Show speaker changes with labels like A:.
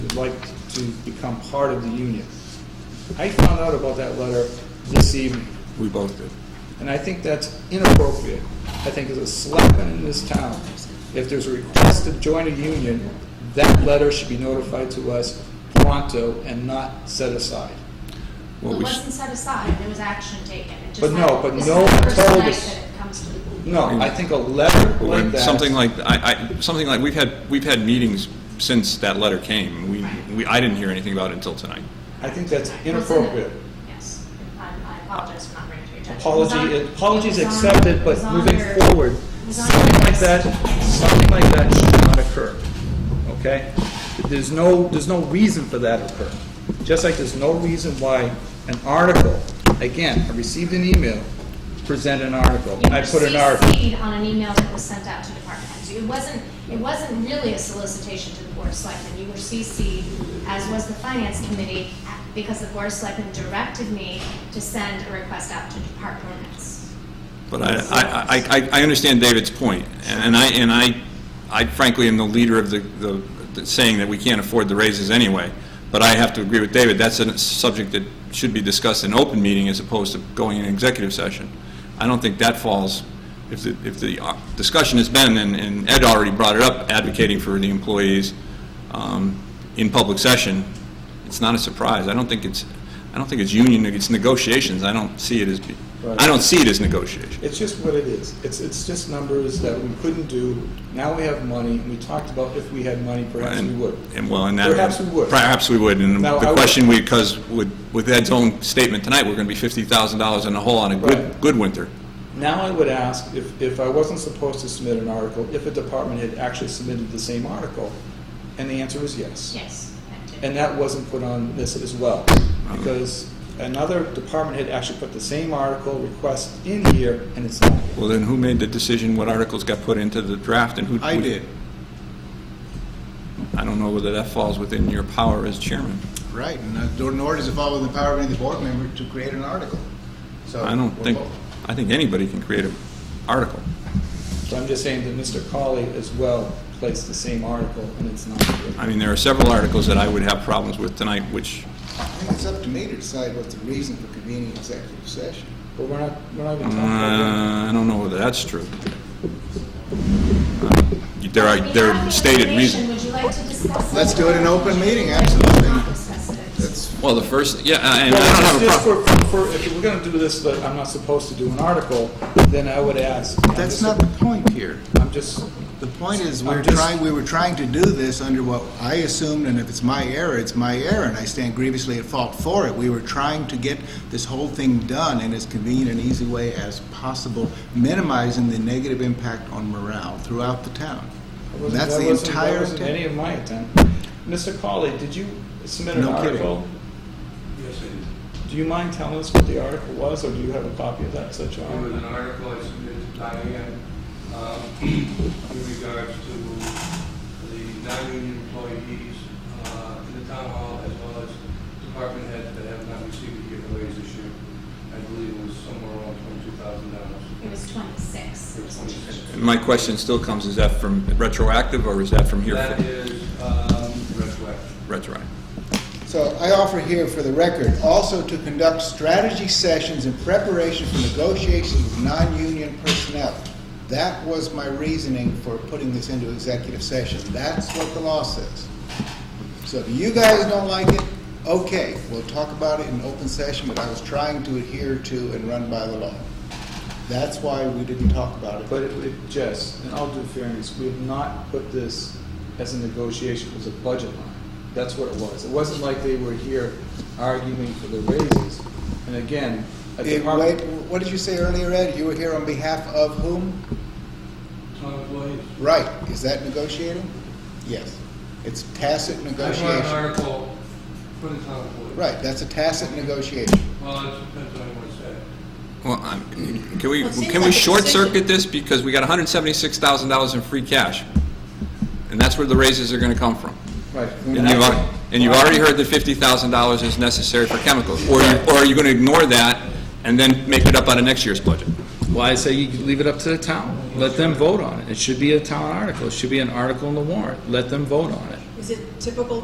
A: like to become part of the union. I found out about that letter this evening,
B: We both did.
A: and I think that's inappropriate. I think it's a slapping in this town. If there's a request to join a union, that letter should be notified to us pronto and not set aside.
B: What
C: It
B: we, s-
C: wasn't set aside, there was action taken. It just
A: But no,
C: happened.
A: but
C: This
A: no
C: is the first
A: told
C: night
A: us.
C: that it comes to the-
A: No, I think a letter like
B: when
A: that.
B: something like, I, I, something like, we've had, we've had meetings since that letter came. We, we, I didn't hear anything about it until tonight.
A: I think that's
C: It was in the-
A: inappropriate.
C: Yes, I I apologize for not bringing it to your attention. It was on-
A: Apology, apologies
C: it was on-
A: accepted,
C: it
A: but
C: was on
A: moving
C: your-
A: forward,
C: it was on
A: something
C: your
A: like
C: list.
A: that, something like that should not occur, okay? There's no, there's no reason for that to occur. Just like there's no reason why an article, again, I received an email, present an article,
C: You
A: I
C: were
A: put an article.
C: CC'd on an email that was sent out to department heads. It wasn't, it wasn't really a solicitation to the board of selectmen. You were CC'd, as was the finance committee, because the board of selectmen directed me to send a request out to department heads.
B: But I, I, I- I, I understand David's point, and I, and I, I frankly am the leader of the, the the saying that we can't afford the raises anyway, but I have to agree with David, that's a subject that should be discussed in open meeting as opposed to going in executive session. I don't think that falls, if the, if the uh, discussion has been, and- and Ed already brought it up, advocating for the employees um, in public session, it's not a surprise. I don't think it's, I don't think it's union, it's negotiations, I don't see it as, be- I don't see it as negotiation.
A: It's just what it is. It's, it's just numbers that we couldn't do. Now we have money, and we talked about if we had money, perhaps we
B: And-
A: would.
B: And, well, and that...
A: Perhaps we would.
B: Perhaps we would, and
A: Now, I
B: the
A: would-
B: question, we because with with Ed's own statement tonight, we're going to be $50,000 in the hole on a good,
A: Right.
B: good winter.
A: Now I would ask if, if I wasn't supposed to submit an article, if a department had actually submitted the same article, and the answer is yes.
C: Yes, I did.
A: And that wasn't put on this as well, because another department had actually put the same article request in here, and it's not.
B: Well, then who made the decision what articles got put into the draft and who...
D: I
B: who-
D: did,
B: I don't know whether that falls within your power as chairman.
D: right, and uh, nor- nor does it fall within the power of any board member to create an article.
A: Uh,
D: So
B: I don't
D: we're
B: think,
D: both-
B: I think anybody can create an article.
A: So I'm just saying that Mr. Colley as well placed the same article, and it's not. here.
B: I mean, there are several articles that I would have problems with tonight, which,
D: I think it's up to me to decide what's the reason for convening executive session.
A: But we're not, we're not even
B: uh,
A: talking about
B: I don't know whether that's true. Uh, There are, there are stated reasons.
C: Would you like to discuss it?
D: Let's do it in open meeting, absolutely.
C: Not discuss it.
D: That's,
B: Well, the first, yeah, I- and I don't
A: Well,
B: have a
A: Just
B: problem.
A: for, for, if we're gonna do this, but I'm not supposed to do an article, then I would ask. I'm
D: that's
A: just-
D: not the point here.
A: I'm just,
D: The point is,
A: I'm
D: we're
A: just-
D: trying, we were trying to do this under what I assumed, and if it's my error, it's my error, and I stand grievously at fault for it. We were trying to get this whole thing done in as convenient and easy way as possible, minimizing the negative impact on morale throughout the town.
A: wasn't-
D: That's
A: that
D: the
A: wasn't- That
D: entire,
A: wasn't any
D: thing.
A: of my intent. Mr. Colley, did you submit an
D: No kidding.
A: article?
E: Yes, it
A: Do you mind telling us what the article was, or do you have a copy of that such
E: There was
A: article?
E: an article I submitted to Diane um, in regards to the non-union employees uh, in the town hall as well as department heads that have not received a given raise this year. I believe it was somewhere around twenty-two thousand dollars.
C: It was twenty-six.
E: Or 26.
B: My question still comes, is that from retroactive or is that from here?
E: That is um, retroactive.
B: Retroactive.
D: so I offer here for the record, also to conduct strategy sessions in preparation for negotiations with non-union personnel. That was my reasoning for putting this into executive session. That's what the law says. So if you guys don't like it, okay, we'll talk about it in open session, but I was trying to adhere to and run by the law. That's why we didn't talk about it.
A: But it, it, Jess, in all due fairness, we have not put this as a negotiation, it was a budget line. That's what it was. It wasn't like they were here arguing for the raises. And again, a
D: Eh,
A: department.
D: Wait, what did you say earlier, Ed? You were here on behalf of whom?
E: Town employees.
D: Right, is that negotiating? Yes, it's tacit
E: I brought an
D: negotiation.
E: article for the town employees.
D: Right, that's a tacit negotiation.
E: Well, it depends on what it said.
B: Well, I'm- can we,
C: Well, it seems
B: can we
C: like a
B: short circuit this because we got $176,000 in free cash? And that's where the raises are going to come from.
A: Right.
B: And you've, al- and you've already heard that $50,000 is necessary for chemicals. Or you- or are you going to ignore that and then make it up out of next year's budget?
A: Well, I say you leave it up to the town. Let them vote on it. It should be a town article. It should be an article in the warrant. Let them vote on it.
F: Is it typical